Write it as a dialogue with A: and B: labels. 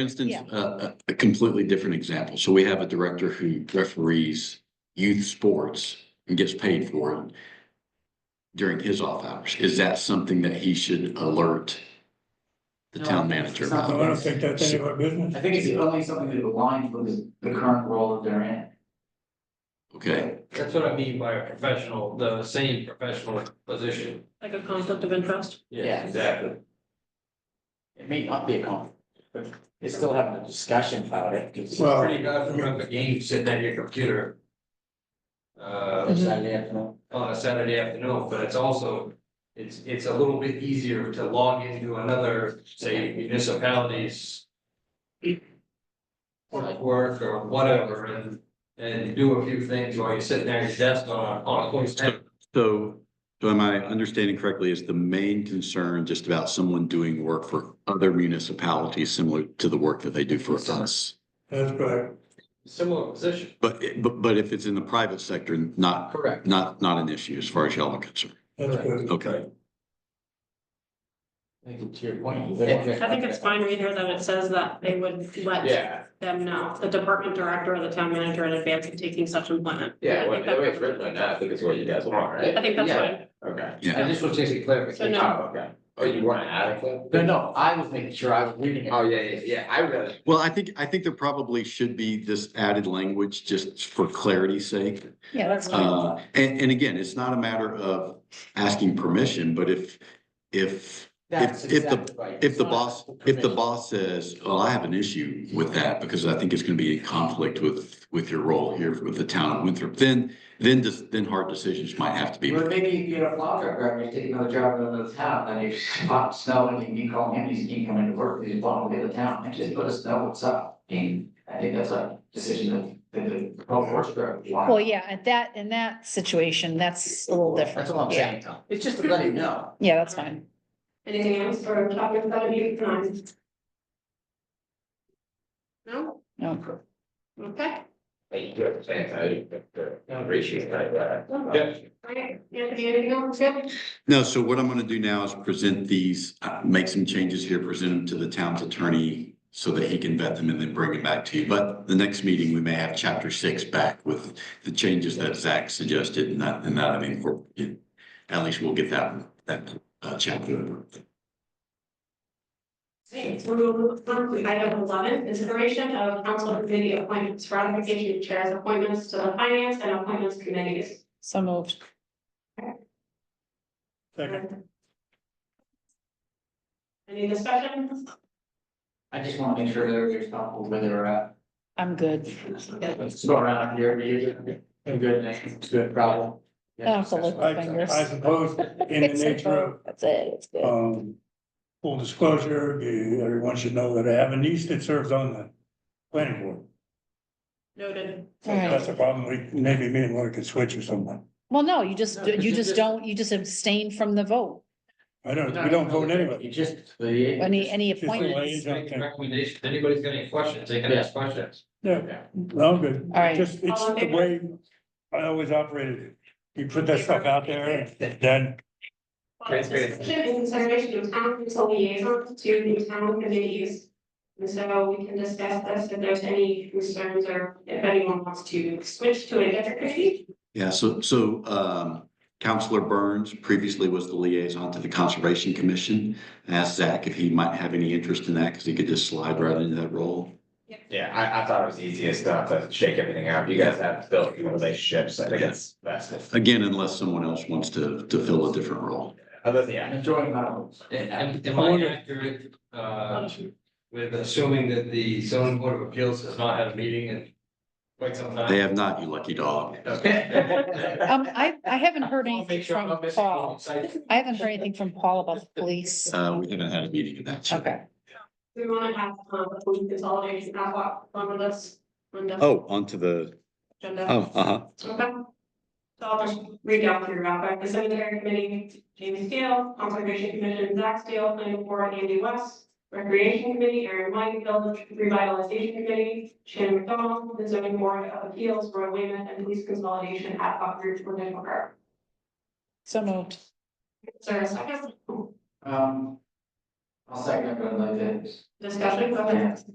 A: instance,
B: Yeah.
A: a, a- a completely different example. So we have a director who referees youth sports and gets paid for it during his off hours. Is that something that he should alert the
C: No,
A: town
C: it's
A: manager
C: not.
D: I
A: about?
D: don't think that's any of our business.
C: I think it's only something that aligns with the, the current role that they're in.
A: Okay,
E: That's what I mean by a professional, the same professional position.
F: Like a conflict of interest?
C: Yeah, exactly. It may not be a conflict, but they still having a discussion about it, because it's
D: Well-
E: Pretty guys from the game sitting at your computer. Uh,
F: Mm-hmm.
C: Saturday afternoon.
E: on a Saturday afternoon, but it's also, it's, it's a little bit easier to log into another, say municipalities. Work or whatever, and, and do a few things while you're sitting there at your desk on, on a close tab.
A: so, so am I understanding correctly, is the main concern just about someone doing work for other municipalities similar to the work that they do for us?
D: That's correct.
E: similar position.
A: But, but, but if it's in the private sector, not,
E: Correct.
A: not, not an issue as far as y'all are concerned.
D: That's good.
A: Okay.
C: I think to your point.
F: I think it's fine right here that it says that they would let
E: Yeah,
F: them know, the department director or the town manager in advance of taking such employment.
G: Yeah,
F: I
G: when,
F: think
G: the way it's
F: that-
G: written right now, I think it's what you guys want, right?
F: I think that's
C: Yeah.
F: fine.
G: Okay.
A: Yeah.
E: and this was just a
F: So
E: clarification.
F: no,
G: Oh, okay. Oh, you want to add a clip?
C: No, no, I was making sure I was reading it.
G: Oh, yeah, yeah, yeah, I read it.
A: Well, I think, I think there probably should be this added language just for clarity's sake.
B: Yeah, that's fine.
A: Uh, and, and again, it's not a matter of asking permission, but if, if,
C: That's
A: if the-
C: exactly right.
A: if the boss, if the boss says, well, I have an issue with that because I think it's gonna be in conflict with, with your role here with the town of Winthrop, then, then just, then hard decisions might have to be.
C: Well,
A: made.
C: maybe if you're a plow truck driver, you take another job in another town, then you pop snow and you call him, he's he can't come into work, he's blowing away the town, and just let us know what's up. And I think that's a decision that that the golf course driver.
B: Well, yeah, at that, in that situation, that's a little different.
C: That's all I'm
B: Yeah.
C: saying, Tom. It's just to let him know.
B: Yeah, that's fine.
F: Anything else for topic that you can? No,
B: No,
F: okay,
G: Like, you have to say, I think that the ratio is right there.
E: Yeah.
F: all right, Anthony, anything else, good?
A: No, so what I'm gonna do now is present these, uh, make some changes here, present them to the town's attorney so that he can vet them and then bring them back to you. But the next meeting, we may have chapter six back with the changes that Zach suggested and that, and that I mean, we're- at least we'll get that, that, uh, chapter.
F: Okay, so we'll move on to item eleven, consideration of council committee appointments, ratification of chairs appointments to the finance and appointments committees.
B: so moved.
D: Second.
F: Any discussion?
C: I just want to make sure that everybody's comfortable where they're at.
B: I'm good.
C: Let's go around here, every year. A good name, it's a good problem.
B: I don't have to lift my
D: I,
B: fingers.
D: I suppose in the
B: It's like,
D: nature of,
B: oh, That's it, it's good.
D: um, full disclosure, you- everyone should know that I have a niece that serves on the planning board.
F: Noted.
B: All right.
D: That's a problem. We, maybe me and Laura could switch or something.
B: Well, no, you just,
C: No, 'cause
B: you
C: you
B: just
C: just-
B: don't, you just abstain from the vote.
D: I don't, we don't vote anyway.
C: You just, the.
B: Any, any
D: Just the
B: appointment.
D: way-
E: Make a recommendation, If anybody's got any questions, they can ask questions.
D: Yeah,
C: Okay.
D: no, I'm good.
B: All right.
D: Just, it's
F: All in
D: the
F: favor?
D: way I always operated. You put that stuff out there and then
E: Transparency.
F: Discussion and consideration of town council liaison to the town committees. And so we can discuss this if there's any concerns or if anyone wants to switch to a different committee.
A: Yeah, so, so, um, Counselor Burns previously was the liaison to the Conservation Commission. Asked Zach if he might have any interest in that because he could just slide right into that role.
G: Yeah, I, I thought it was easiest uh, to shake everything out. You guys have built your relationships, I think it's best if,
A: Again, unless someone else wants to, to fill a different role.
G: other than, yeah.
C: I'm enjoying my rules.
G: uh,
E: Am am I accurate, uh, with assuming that the zoning board of appeals has not had a meeting in quite some
A: They
E: time?
A: have not, you lucky dog.
B: Um, I, I haven't heard
E: I'll
B: anything
E: make sure I'm
B: from
E: not missing any
B: Paul.
E: sites.
B: I haven't heard anything from Paul about the police.
A: Uh, we haven't had a meeting of that. yet.
B: Okay,
F: We want to have, um, we consolidate that lot on the list. on the
A: Oh, onto the,
F: agenda.
B: um,
A: oh, uh-huh.
F: Okay. So I'll just read down through real quick. The cemetery committee, Jamie Steele, conservation commission, Zach Steele, planning board, Andy West. Recreation committee, Aaron Weinfeld, revitalization committee, Shannon McDonald, the zoning board of appeals, Roy Wayman, and police consolidation at Buck Ridge Woodland Park.
B: so moved.
F: Is there a second
C: Um. I'll second, but like this.
F: discussion? Okay.